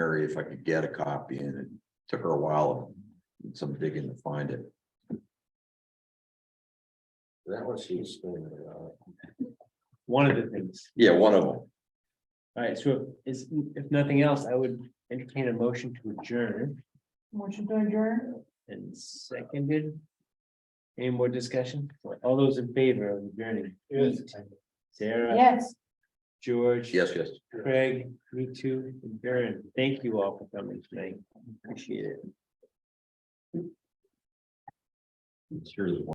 library if I could get a copy and it took her a while. and Some digging to find it. That was she was uh, screaming about. one of the things. Yeah, one of them. All right, so is, if nothing else, I would entertain a motion to adjourn Motion to adjourn? and seconded. Any more discussion? All those in favor of adjourning? Yes. Sarah, Yes. George. Yes, yes. Craig, me too, and Darren, thank you all for coming tonight. Appreciate it. Sure.